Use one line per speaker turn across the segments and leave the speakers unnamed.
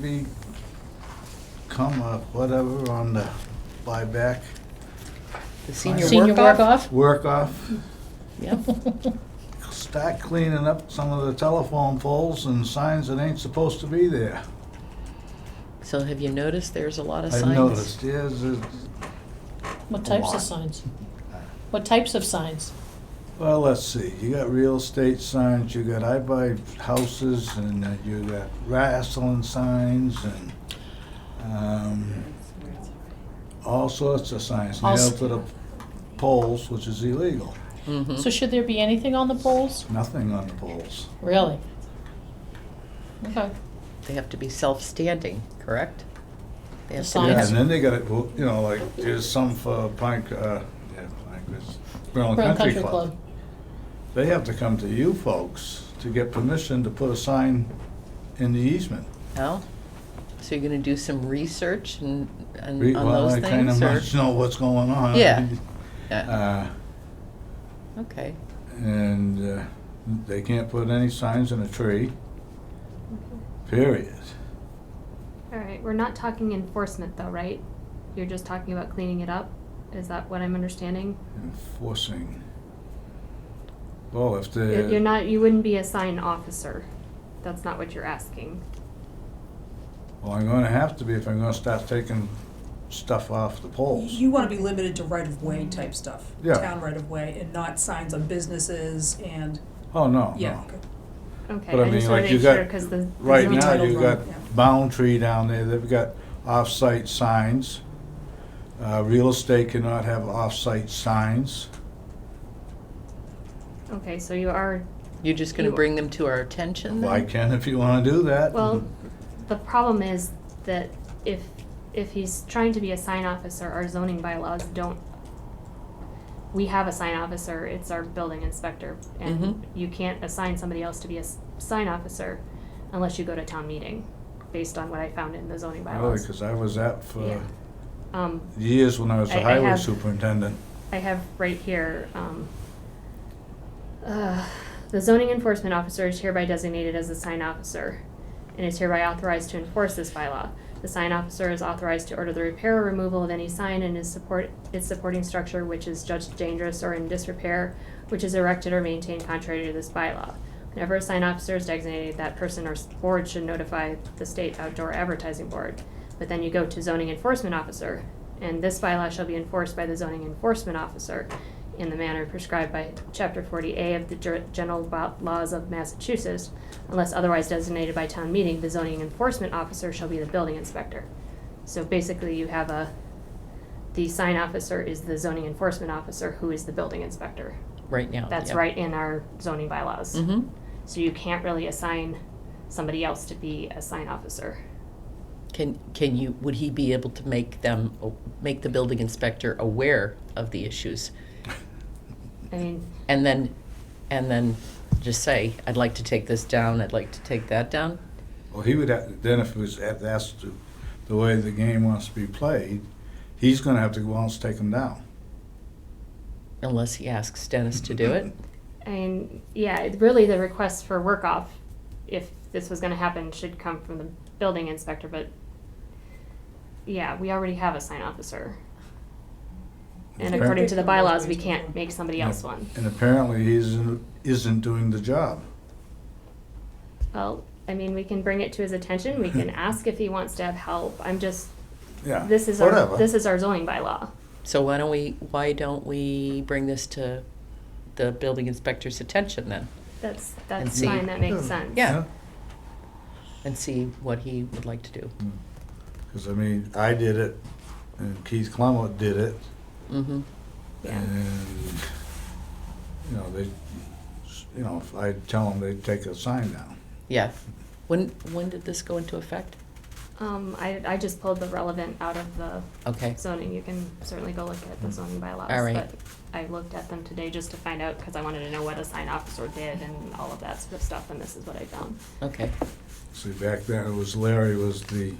be come a whatever on the buyback,
The senior
Senior
work off?
work-off?
work off,
Yep.
start cleaning up some of the telephone poles and signs that ain't supposed to be there.
So have you noticed there's a lot of signs?
I've noticed, yes, it-
What
A
types
lot.
of signs? What types of signs?
well, let's see, you got real estate signs, you got I buy houses, and uh, you got wrestling signs, and, um, all sorts of signs
All s-
nailed to the poles, which is illegal. Hmm?
Mhm.
So should there be anything on the poles?
Nothing on the poles.
Really? Okay.
They have to be self-standing, correct? They have
The
to be-
signs.
Yeah, and then they got it, well, you know, like, there's some for Pine, uh, yeah, Pine Crest, Berlin
Berlin
Country Club. They have to come to you folks to get permission to put a sign in the easement.
Oh, so you're gonna do some research and, and
Re-
on
well,
those
I kinda
things, or-
must Know what's going on.
Yeah. Yeah,
Uh,
okay,
and, uh, they can't put any signs in a tree, period.
All right, we're not talking enforcement though, right? You're just talking about cleaning it up? Is that what I'm understanding?
Enforcing. Well, if the.
You're you're not, you wouldn't be a sign officer. That's not what you're asking.
Well, I'm gonna have to be if I'm gonna start taking stuff off the poles.
You want to be limited to right-of-way type stuff.
Yeah.
Town right-of-way and not signs on businesses and,
Oh, no,
yeah.
no.
okay.
Okay,
But I
I just
mean,
wanna
like, you
make sure,
got-
cause the. the
Right
zoning-
now,
Entitled
you've
wrong,
got
yeah.
Boundtree down there, they've got off-site signs. Uh, real estate cannot have off-site signs.
Okay, so you are,
you're just gonna
You-
bring them to our attention
Well, I
then?
can if you wanna do that.
Mm-hmm. well, the problem is that if, if he's trying to be a sign officer, our zoning bylaws don't. We have a sign officer, it's our building inspector,
Mhm.
and you can't assign somebody else to be a s- sign officer unless you go to town meeting, based on what I found in the zoning
Mm-hmm. Really,
bylaws.
cause Oh, I was at for
Yeah. Um,
years when I was
I-
a
I
highway
have-
superintendent.
I have right here, um, uh, the zoning enforcement officer is hereby designated as a sign officer and is hereby authorized to enforce this bylaw. The sign officer is authorized to order the repair or removal of any sign and is support, its supporting structure which is judged dangerous or in disrepair, which is erected or maintained contrary to this bylaw. Whenever a sign officer is designated, that person or s- board should notify the state outdoor advertising board. But then you go to zoning enforcement officer, and this bylaw shall be enforced by the zoning enforcement officer in the manner prescribed by chapter forty A of the Ger- general Bo- laws of Massachusetts. Unless otherwise designated by town meeting, the zoning enforcement officer shall be the building inspector. So basically, you have a, the sign officer is the zoning enforcement officer, who is the building inspector.
Right now,
That's
Oh, yeah.
right in our zoning bylaws.
Mm-hmm,
So you can't really assign somebody else to be a sign officer.
can, can you, would he be able to make them, a- make the building inspector aware of the issues?
I mean,
And then, and then just say, I'd like to take this down, I'd like to take that down?
Well, he would, have- then if it was, if that's the, the way the game wants to be played, he's gonna have to go out and take them down.
Unless he asks Dennis to do it?
I mean, yeah, it- really the request for work off, if this was gonna happen, should come from the building inspector, but yeah, we already have a sign officer. And
Okay.
according to the bylaws, we can't make somebody else one.
And apparently he isn't, isn't doing the job.
Well, I mean, we can bring it to his attention, we can ask if he wants to have help, I'm just,
Yeah,
this is
whatever.
our, this is our zoning bylaw.
So why don't we, why don't we bring this to the building inspector's attention then?
That's,
And
that's
see-
fine, that
Hmm.
makes sense.
Yeah. And see what he would like to do.
Because I mean, I did it, and Keith Clumwood did it,
Mm-hmm,
Yeah.
and you know they, you know, if I tell them they take a sign down.
yeah. When, when did this go into effect?
Um, I, I just pulled the relevant out of the
Okay,
zoning, you can certainly go look at the zoning bylaws.
All right.
But I looked at them today just to find out, because I wanted to know what a sign officer did and all of that sort of stuff, and this is what I found.
okay.
See, back then it was Larry was the,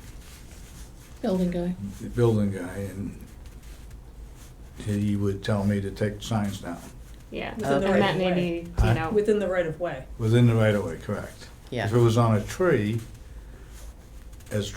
Building guy.
the building guy, and he would tell me to take signs down
Yeah,
Within the
and that
right of
maybe,
way.
you know,
Within the right-of-way.
within the right of way, correct?
Yeah.
If it was on a tree, as